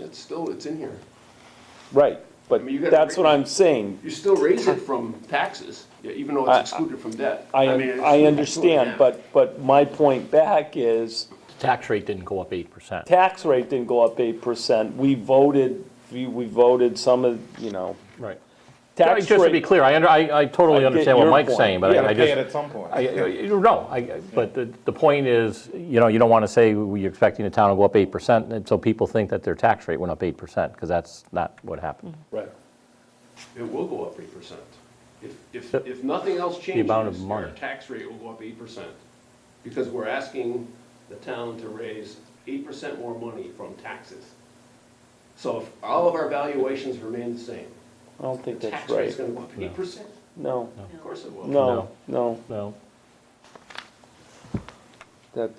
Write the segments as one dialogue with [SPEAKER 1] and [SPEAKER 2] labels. [SPEAKER 1] it's still, it's in here.
[SPEAKER 2] Right, but
[SPEAKER 1] I mean, you gotta
[SPEAKER 2] that's what
[SPEAKER 1] raise-
[SPEAKER 2] I'm saying.
[SPEAKER 1] You still raise it from taxes, yeah, even though
[SPEAKER 2] I-
[SPEAKER 1] it's excluded from debt.
[SPEAKER 2] I,
[SPEAKER 1] mean, it's-
[SPEAKER 2] I understand, but, but my point back is,
[SPEAKER 3] Tax rate didn't go up 8%.
[SPEAKER 2] tax rate didn't go up eight percent. We voted, we, we voted some of, you know,
[SPEAKER 3] Right.
[SPEAKER 2] tax
[SPEAKER 3] Just to be
[SPEAKER 2] rate.
[SPEAKER 3] clear, I under, I I
[SPEAKER 2] I
[SPEAKER 3] totally
[SPEAKER 2] get
[SPEAKER 3] understand what
[SPEAKER 2] your
[SPEAKER 3] Mike's
[SPEAKER 2] point.
[SPEAKER 3] saying, but
[SPEAKER 2] You
[SPEAKER 3] I- I
[SPEAKER 4] gotta pay it
[SPEAKER 3] just,
[SPEAKER 4] at some point.
[SPEAKER 3] I, I- you- no, I- I- but the, the point is, you know, you don't want to say you're expecting the town to go up 8%, and so people think that their tax rate went up 8%, because that's not what happened.
[SPEAKER 2] Right.
[SPEAKER 1] It will go up eight percent. If, if,
[SPEAKER 3] Yep.
[SPEAKER 1] if nothing else changes,
[SPEAKER 3] amount of
[SPEAKER 1] our
[SPEAKER 3] money.
[SPEAKER 1] tax rate will go up eight percent. Because we're asking the town to raise eight percent more money from taxes. So if all of our valuations remain the same,
[SPEAKER 2] I don't think
[SPEAKER 1] the
[SPEAKER 2] that's
[SPEAKER 1] tax rate's
[SPEAKER 2] right.
[SPEAKER 1] gonna go up eight percent?
[SPEAKER 2] No,
[SPEAKER 1] Of course it will.
[SPEAKER 2] no, no,
[SPEAKER 3] No.
[SPEAKER 2] that,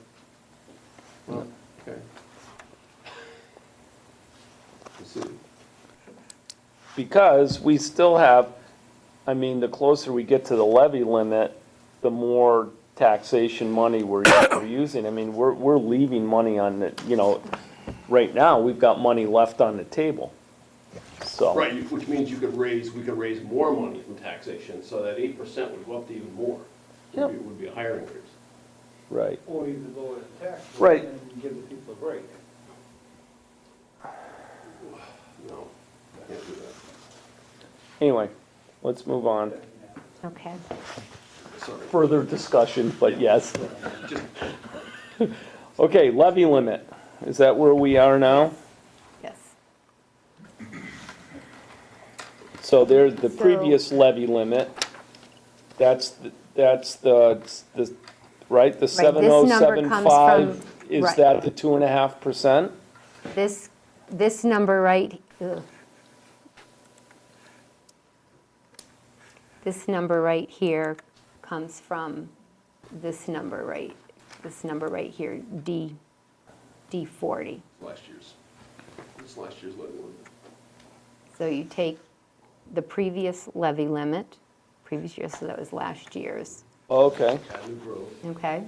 [SPEAKER 1] Well, okay. We'll see.
[SPEAKER 2] because we still have, I mean, the closer we get to the levy limit, the more taxation money we're, we're using. I mean, we're, we're leaving money on the, you know, right now, we've got money left on the table. So.
[SPEAKER 1] Right, you- which means you could raise, we could raise more money from taxation, so that eight percent would go up to even more. It would be- would be a higher increase.
[SPEAKER 2] Right.
[SPEAKER 5] Or even lower the tax
[SPEAKER 2] Right.
[SPEAKER 5] rate and give the people a break.
[SPEAKER 1] No, I can't do that.
[SPEAKER 2] Anyway, let's move on.
[SPEAKER 6] Okay.
[SPEAKER 1] Sorry,
[SPEAKER 2] Further discussion, but yes.
[SPEAKER 1] just,
[SPEAKER 2] Okay, levy limit. Is that where we are now?
[SPEAKER 6] Yes.
[SPEAKER 2] So there's the
[SPEAKER 6] So-
[SPEAKER 2] previous levy limit. That's, the- that's the, the, right, the
[SPEAKER 6] Right,
[SPEAKER 2] seven oh
[SPEAKER 6] this number
[SPEAKER 2] seven
[SPEAKER 6] comes
[SPEAKER 2] five?
[SPEAKER 6] from-
[SPEAKER 2] Is
[SPEAKER 6] right.
[SPEAKER 2] that the two and a half percent?
[SPEAKER 6] This, this number right, ugh. this number right here comes from this number right, this number right here, D, D40.
[SPEAKER 1] last year's, this last year's levy limit.
[SPEAKER 6] So you take the previous levy limit, previous year, so that was last year's,
[SPEAKER 2] Okay,
[SPEAKER 1] Avenue Grove,
[SPEAKER 6] okay?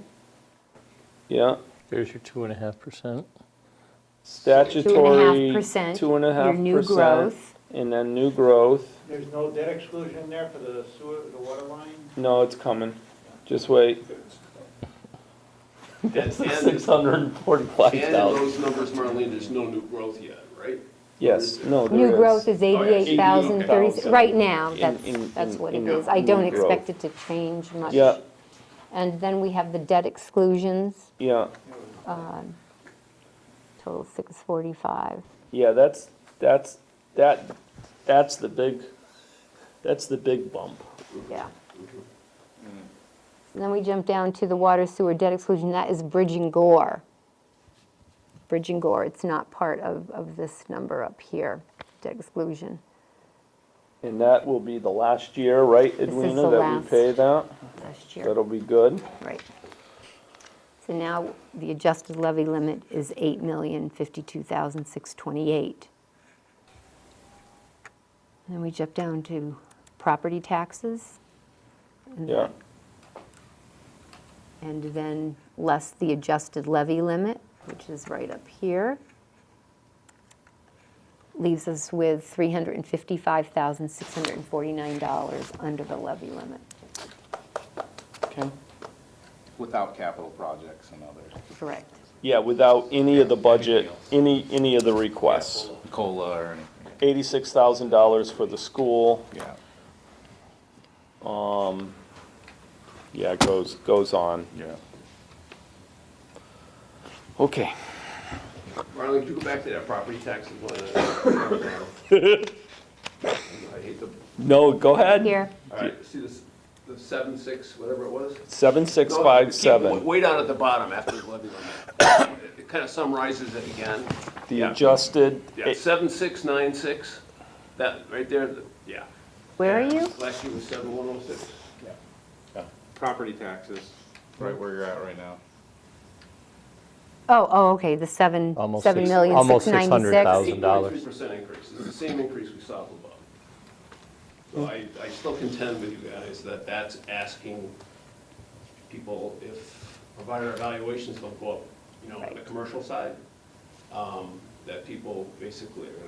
[SPEAKER 2] yeah.
[SPEAKER 3] There's your 2.5%.
[SPEAKER 2] Statutory.
[SPEAKER 6] 2.5%,
[SPEAKER 2] Two and a half
[SPEAKER 6] your new
[SPEAKER 2] percent,
[SPEAKER 6] growth.
[SPEAKER 2] And then new growth.
[SPEAKER 5] There's no debt exclusion in there for the sewer, the water line?
[SPEAKER 2] No, it's coming. Just wait. That's
[SPEAKER 1] And-
[SPEAKER 2] six hundred and forty-five
[SPEAKER 1] And in
[SPEAKER 2] thousand.
[SPEAKER 1] those numbers, Marlene, there's no new growth yet, right?
[SPEAKER 2] Yes, no, there is.
[SPEAKER 6] New growth is
[SPEAKER 1] Oh, yeah,
[SPEAKER 6] 88,036,
[SPEAKER 2] 88,000.
[SPEAKER 6] right now,
[SPEAKER 2] In- in-
[SPEAKER 6] that's, that's
[SPEAKER 2] in-
[SPEAKER 6] what
[SPEAKER 2] in
[SPEAKER 6] it is. I
[SPEAKER 2] new
[SPEAKER 6] don't
[SPEAKER 2] growth.
[SPEAKER 6] expect it to change much.
[SPEAKER 2] Yeah,
[SPEAKER 6] And then we have the debt exclusions,
[SPEAKER 2] yeah,
[SPEAKER 6] total 645.
[SPEAKER 2] yeah, that's, that's, that, that's the big, that's the big bump.
[SPEAKER 6] Yeah. And then we jump down to the water sewer debt exclusion, that is Bridge and Gore. Bridge and Gore, it's not part of, of this number up here, debt exclusion.
[SPEAKER 2] And that will be the last year, right,
[SPEAKER 6] is
[SPEAKER 2] Edwina,
[SPEAKER 6] the
[SPEAKER 2] that we
[SPEAKER 6] last.
[SPEAKER 2] pay that?
[SPEAKER 6] Last year.
[SPEAKER 2] That'll be good.
[SPEAKER 6] Right. So now, the adjusted levy limit is eight million fifty-two thousand six twenty-eight. Then we jump down to property taxes, Mm-hmm.
[SPEAKER 2] Yeah,
[SPEAKER 6] and then less the adjusted levy limit, which is right up here. Leaves us with three hundred and fifty-five thousand six hundred and forty-nine dollars under the levy limit.
[SPEAKER 2] okay.
[SPEAKER 4] Without capital projects and others,
[SPEAKER 6] Correct.
[SPEAKER 2] Yeah, without any of the budget, any, any of the requests.
[SPEAKER 4] COLA or anything,
[SPEAKER 2] Eighty-six thousand dollars for the school,
[SPEAKER 4] yeah,
[SPEAKER 2] yeah, it goes, goes on.
[SPEAKER 4] yeah.
[SPEAKER 2] Okay.
[SPEAKER 1] Marlene, could you go back to that property taxes line? item? I hate the,
[SPEAKER 2] No, go ahead.
[SPEAKER 6] Here,
[SPEAKER 1] all right, see this, the seven, six, whatever it was?
[SPEAKER 2] Seven, six, five,
[SPEAKER 1] Keep-
[SPEAKER 2] seven,
[SPEAKER 1] Way down at the bottom after the levy limit. It kind of summarizes it again.
[SPEAKER 2] the
[SPEAKER 1] Yeah.
[SPEAKER 2] adjusted,
[SPEAKER 1] Yeah, seven, six, nine, six, that, right there, the- yeah.
[SPEAKER 6] where are
[SPEAKER 1] Yeah,
[SPEAKER 6] you?
[SPEAKER 1] Last year was seven, one, oh, six.
[SPEAKER 4] Property taxes, right where you're at right now.
[SPEAKER 6] Oh, oh, okay, the seven,
[SPEAKER 3] Almost
[SPEAKER 6] seven
[SPEAKER 3] six-
[SPEAKER 6] million,
[SPEAKER 3] almost
[SPEAKER 6] six ninety-six.
[SPEAKER 3] 600,000. $1,000.
[SPEAKER 1] Eight percent increase, it's the same increase we saw above. So I, I still contend with you guys that that's asking people if provider evaluations don't go up, you know, on the
[SPEAKER 6] Right.
[SPEAKER 1] commercial side, um, that people basically are